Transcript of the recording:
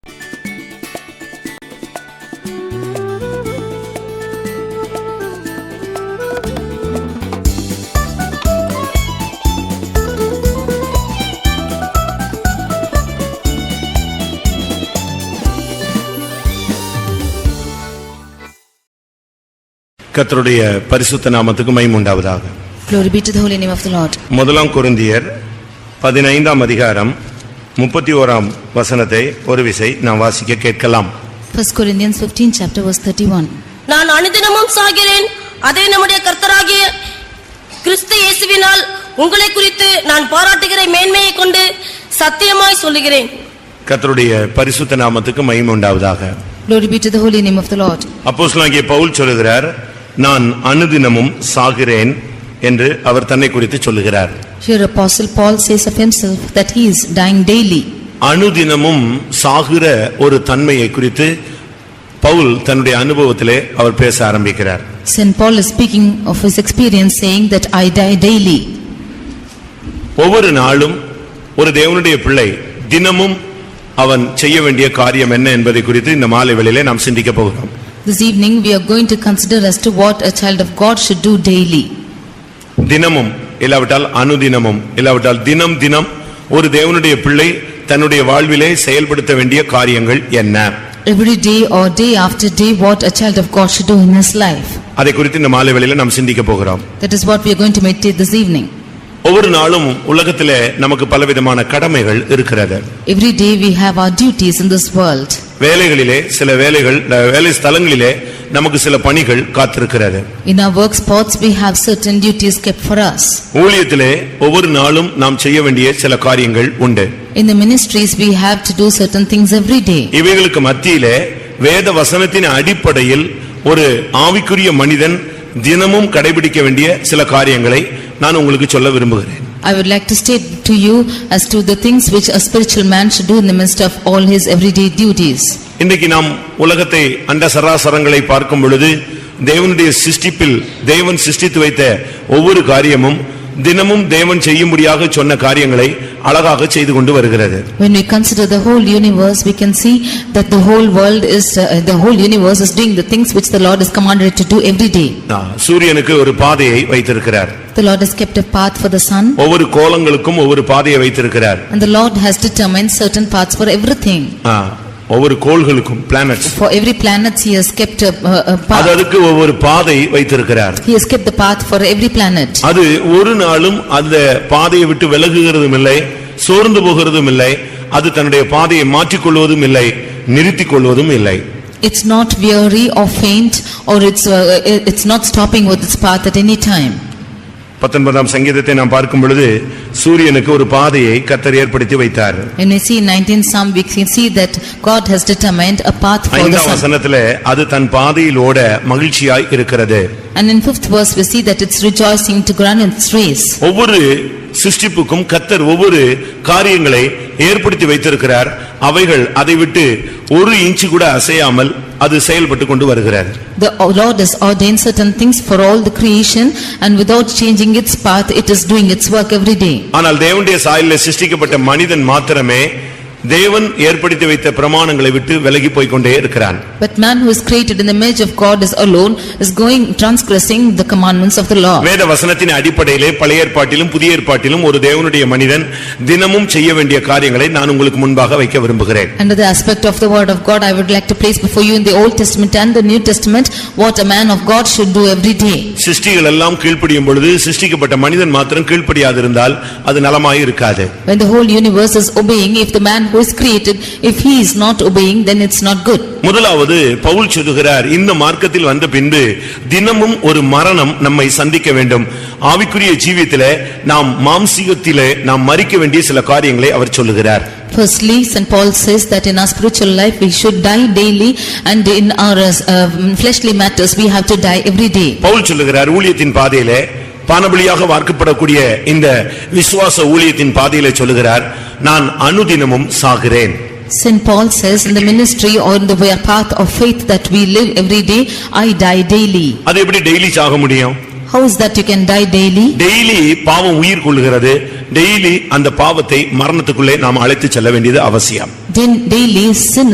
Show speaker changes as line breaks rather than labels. கர்த்தருடைய பரிசுத்த நாமத்துக்கு மகிமை உண்டாவதாக
Glory be to the holy name of the Lord.
முதலாம் கொரிந்தியர் பதினைந்தாம் அதிகாரம் முப்பத்தி ஓராம் வசனத்தை ஒரு விசை நாம் வாசிக்க கேட்கலாம்
1 Corinthians 15 chapter verse 31.
நான் அனுதினமும் சாகிறேன் அதே நம்முடைய கர்த்தராகிய கிறிஸ்து இயேசுவினால் உங்களை குறித்து நான் பாராட்டுகிற மேன்மையை கொண்டு சத்தியமாய் சொல்லுகிறேன்
கர்த்தருடைய பரிசுத்த நாமத்துக்கு மகிமை உண்டாவதாக
Glory be to the holy name of the Lord.
அப்போஸ்தலனாகிய பவுல் சொல்லுகிறார் நான் அனுதினமும் சாகிறேன் என்று அவர் தன்னை குறித்து சொல்லுகிறார்
Here Apostle Paul says of himself that he is dying daily.
அனுதினமும் சாகிற ஒரு தன்மையை குறித்து பவுல் தன்னுடைய அனுபவத்திலே அவர் பேச ஆரம்பிக்கிறார்
St. Paul is speaking of his experience saying that I die daily.
ஒவ்வொரு நாளும் ஒரு தேவனுடைய பிள்ளை தினமும் அவன் செய்ய வேண்டிய காரியம் என்ன என்பதை குறித்து இந்த மாலை வேளையிலே நாம் சிந்திக்க போகிறோம்
This evening we are going to consider as to what a child of God should do daily.
தினமும் இல்லாவிட்டால் அனுதினமும் இல்லாவிட்டால் தினம் தினம் ஒரு தேவனுடைய பிள்ளை தன்னுடைய வாழ்விலே செயல்படுத்த வேண்டிய காரியங்கள் என்ன
Every day or day after day what a child of God should do in his life.
அதை குறித்து இந்த மாலை வேளையிலே நாம் சிந்திக்க போகிறோம்
That is what we are going to meditate this evening.
ஒவ்வொரு நாளும் உலகத்திலே நமக்கு பலவிதமான கடமைகள் இருக்கிறது
Every day we have our duties in this world.
வேலைகளிலே சில வேலைகள் வேலை ஸ்தலங்களிலே நமக்கு சில பணிகள் காத்திருக்கிறது
In our work spots, we have certain duties kept for us.
ஊழியத்திலே ஒவ்வொரு நாளும் நாம் செய்ய வேண்டிய சில காரியங்கள் உண்டு
In the ministries, we have to do certain things every day.
இவைகளுக்கு மத்தியிலே வேத வசனத்தின் அடிப்படையில் ஒரு ஆவிக்குரிய மனிதன் தினமும் கடைபிடிக்க வேண்டிய சில காரியங்களை நான் உங்களுக்கு சொல்ல விரும்புகிறேன்
I would like to state to you as to the things which a spiritual man should do in the midst of all his everyday duties.
இன்றைக்கு நாம் உலகத்தை அண்ட சராசரங்களை பார்க்கும் பொழுது தேவனுடைய சிஸ்டிப்பில் தேவன் சிஸ்டித்து வைத்த ஒவ்வொரு காரியமும் தினமும் தேவன் செய்யும்படியாக சொன்ன காரியங்களை அழகாக செய்து கொண்டு வருகிறது
When we consider the whole universe, we can see that the whole world is, uh, the whole universe is doing the things which the Lord has commanded it to do every day.
ஆ, சூரியனுக்கு ஒரு பாதையை வைத்திருக்கிறார்
The Lord has kept a path for the sun,
ஒவ்வொரு கோலங்களுக்கும் ஒவ்வொரு பாதையை வைத்திருக்கிறார்
and the Lord has determined certain paths for everything.
ஆ, ஒவ்வொரு கோள்களுக்கும் planets
For every planet, He has kept a, a- a path.
அது அதுக்கு ஒவ்வொரு பாதை வைத்திருக்கிறார்
He has kept the path for every planet.
அது ஒரு நாளும் அந்த பாதையை விட்டு விலகுகிறதும் இல்லை சோர்ந்து போகிறதும் இல்லை அது தன்னுடைய பாதையை மாற்றிக் கொள்வதும் இல்லை நிறுத்திக் கொள்வதும் இல்லை
It's not weary or faint or it's, uh, it's not stopping with its path at any time.
பத்தொன்பதாம் சங்கீதத்தை நாம் பார்க்கும் பொழுது சூரியனுக்கு ஒரு பாதையை கத்தர் ஏற்படுத்தி வைத்தார்
When we see in 19th Psalm, we can see that God has determined a path for the
ஐந்தாம்
sun.
வசனத்திலே அது தன் பாதையில் ஓட மகிழ்ச்சியாய் இருக்கிறது
And in 5th verse, we see that it's rejoicing to run its race.
ஒவ்வொரு சிஸ்டிப்புக்கும் கத்தர் ஒவ்வொரு காரியங்களை ஏற்படுத்தி வைத்திருக்கிறார் அவைகள் அதை விட்டு ஒரு இன்ச்சு கூட அசையாமல் அது செயல்பட்டு கொண்டு வருகிறார்
The Lord has ordained certain things for all the creation and without changing its path, it is doing its work every day.
ஆனால் தேவனுடைய சாயலிலே சிருஷ்டிக்கப்பட்ட மனிதன் மாத்திரமே தேவன் ஏற்படுத்தி வைத்த பிரமாணங்களை விட்டு விலகி போய் கொண்டே இருக்கிறான்
But man who is created in the image of God is alone, is going transgressing the commandments of the law.
வேத வசனத்தின் அடிப்படையிலே பழைய ஏற்பாட்டிலும் புதிய ஏற்பாட்டிலும் ஒரு தேவனுடைய மனிதன் தினமும் செய்ய வேண்டிய காரியங்களை நான் உங்களுக்கு முன்பாக வைக்க விரும்புகிறேன்
Under the aspect of the word of God, I would like to place before you in the Old Testament and the New Testament what a man of God should do every day.
சிருஷ்டிகள் எல்லாம் கீழ்ப்படியும் பொழுது சிருஷ்டிக்கப்பட்ட மனிதன் மாத்திரம் கீழ்ப்படியாதிருந்தால் அது நலமாய் இருக்காது
When the whole universe is obeying, if the man who is created, if he is not obeying, then it's not good.
முதலாவது பவுல் சொல்லுகிறார் இந்த மார்க்கத்தில் வந்த பின்பு தினமும் ஒரு மரணம் நம்மை சந்திக்க வேண்டும் ஆவிக்குரிய ஜீவியத்திலே நாம் மாம்சீகத்திலே நாம் மறிக்க வேண்டிய சில காரியங்களை அவர் சொல்லுகிறார்
Firstly, St. Paul says that in our spiritual life, we should die daily and in our uh, fleshly matters, we have to die every day.
Pavul சொல்லுகிறார் ஊழியத்தின் பாதையிலே பானபலியாக வார்க்கப்படக்கூடிய இந்த விசுவாச ஊழியத்தின் பாதையிலே சொல்லுகிறார் நான் அனுதினமும் சாகிறேன்
St. Paul says in the ministry or in the way- path of faith that we live every day, I die daily.
அது எப்படி டெய்லி சாக முடியும்
How is that you can die daily?
Daily பாவம் உயிர் கொள்கிறது டெய்லி அந்த பாவத்தை மரணத்துக்குள்ளே நாம் அழைத்து செல்ல வேண்டியது அவசியம்
Then daily sin